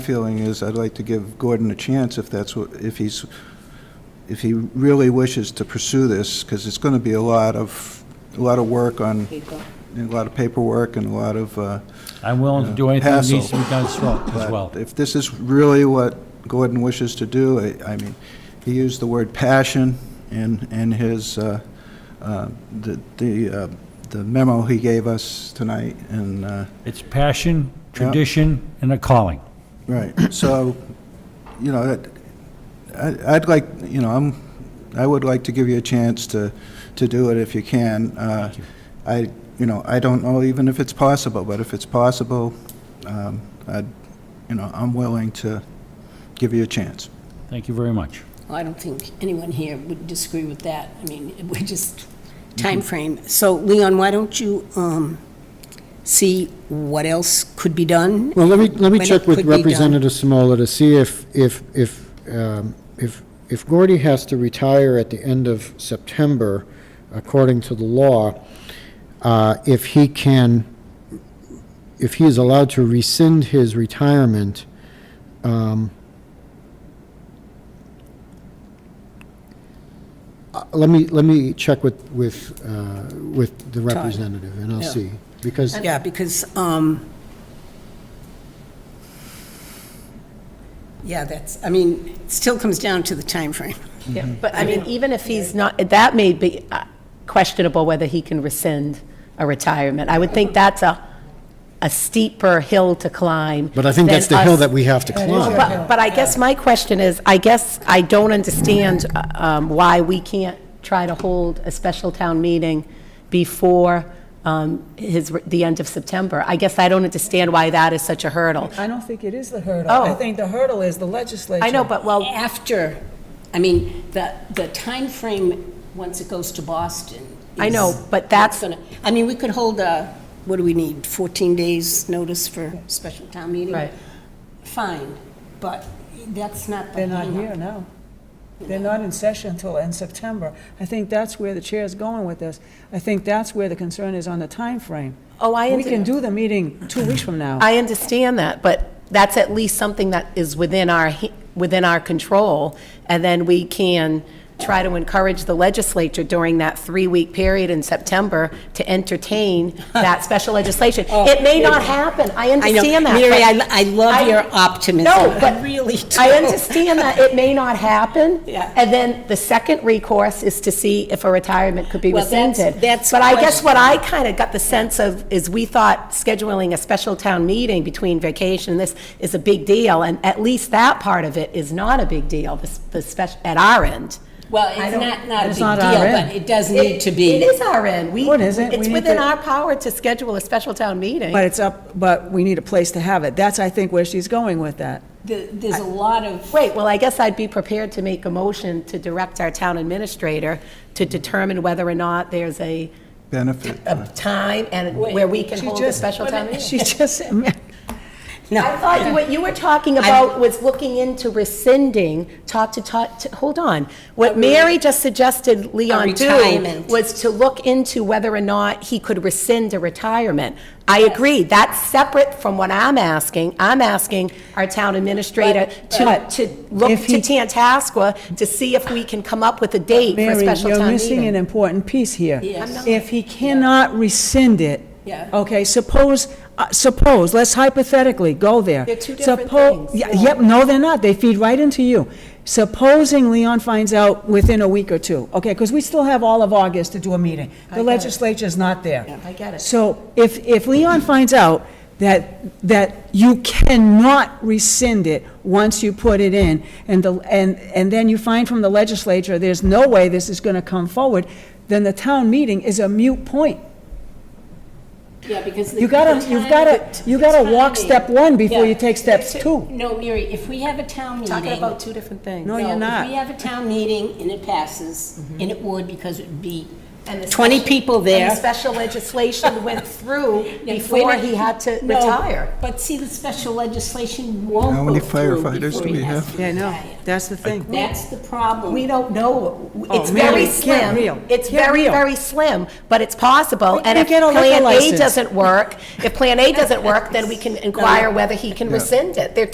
feeling is I'd like to give Gordon a chance if that's what, if he's, if he really wishes to pursue this, because it's going to be a lot of, a lot of work on, a lot of paperwork and a lot of, uh, I'm willing to do Yeah. anything that Hassle. needs to be done as well- as well. but if this is really what Gordon wishes to do, I, I mean, he used the word passion in, in his, uh, uh, the, the uh, the memo he gave us tonight, and, uh, It's passion, tradition, and a calling. Right, so, you know, that- I- I'd like, you know, I'm, I would like to give you a chance to, to do it if you can. Uh, I, you know, I don't know even if it's possible, but if it's possible, um, I'd, you know, I'm willing to give you a chance. Thank you very much. Well, I don't think anyone here would disagree with that. I mean, we're just time frame. So Leon, why don't you um, see what else could be done? Well, let me, let me when it check could with be done. Representative Simola to see if, if, if, um, if, if Gordy has to retire at the end of September, according to the law, uh, if he can, if he is allowed to rescind his retirement, um, uh, let me, let me check with, with, uh, with the representative, and I'll Yeah. see. Because Yeah, because, um, yeah, that's, I mean, it still comes down to the time frame. Yeah, But I mean, even if he's not, that may be uh, questionable whether he can rescind a retirement. I would think that's a, a steeper hill to climb. But I think than that's the hill us- that we have to climb. But, but I guess my question is, I guess I don't understand uh, um, why we can't try to hold a special town meeting before um, his, the end of September. I guess I don't understand why that is such a hurdle. I don't think it is the hurdle. Oh. I think the hurdle is the legislature. I know, but well, After, I mean, the, the frame once it goes to Boston. I know, is but that's- what's gonna- I mean, we could hold a, what do we need, 14 days notice for special town meeting? Right. Fine, but that's not the. They're not hang-up. here now. They're not in session until end September. I think that's where the chair's going with this. I think that's where the concern is on the time frame. oh, I We understand. can do the meeting two weeks from now. I understand that, but that's at least something that is within our, he- within our control, and then we can try to encourage the legislature during that three-week period in September to entertain that special legislation. It may not happen, I Oh, I know, understand that. Mary, I, but- I love I- your optimism. No, but. I really do. I understand that it may not happen. Yeah. And then the second recourse is to see if a retirement could be Well, that's- rescinded. that's But I guess question- what I kind of got the sense of is we thought scheduling a special town meeting between vacation and this is a big deal, and at least that part of it is not a big deal, the, s- the special, at our end. Well, it's not, not a big It's deal, not our end. but it does need to be. It is our end. We- No, Oh, it isn't. It's We need within to- our power to schedule a special town meeting. But it's up, but we need a place to have it. That's, I think, where she's going with that. There- There's a lot of. Great, well, I guess I'd be prepared to make a motion to direct our town administrator to determine whether or not there's a Benefit. uh, of time and where we can She hold a just- special town meeting. She just, I thought you- what you were talking about was looking into rescinding, talk to, talk, to- hold on. What Mm. Mary just suggested Leon do retirement. was to look into whether or not he could rescind a retirement. I agree, that's separate from what I'm asking. I'm asking our town administrator to, but uh, to look if to he- Tantasqua to see if we can come up with a date for a Mary, special you're town missing an meeting. important piece here. Yes. I'm not. If he cannot rescind it. Yeah. Okay, suppose, uh, suppose, let's hypothetically go there. They're two different Suppo- things. Yeah, Yep, no, they're not. They feed right into you. Supposing Leon finds out within a week or two, okay, because we still have all of August to do a meeting. The legislature's not there. I get it. So if, if Leon finds out that, that you cannot rescind it once you put it in, and the, and, and then you find from the legislature, there's no way this is gonna come forward, then the town meeting is a mute point. Yeah, because. the- You gotta, the you've timing- gotta, you gotta walk timing. step one before you Yeah. take steps two. No, Mary, if we have a town meeting. Talking about two different things. No, you're If not. we have a town meeting and it passes, and it would because it would be And the 20 special- people And the there. special legislation went through Yeah, before wait a- he had to No, retire. But see, the special legislation won't How go many through firefighters before do we he has have? to Yeah, I know, retire. that's the thing. That's the problem. We don't know. It's Mary, very Oh, get slim. real. It's Get very, real. very slim, but it's possible. We And can if get a liquor Plan A license. doesn't work, if Plan A doesn't work, then we can inquire whether he can rescind it. They're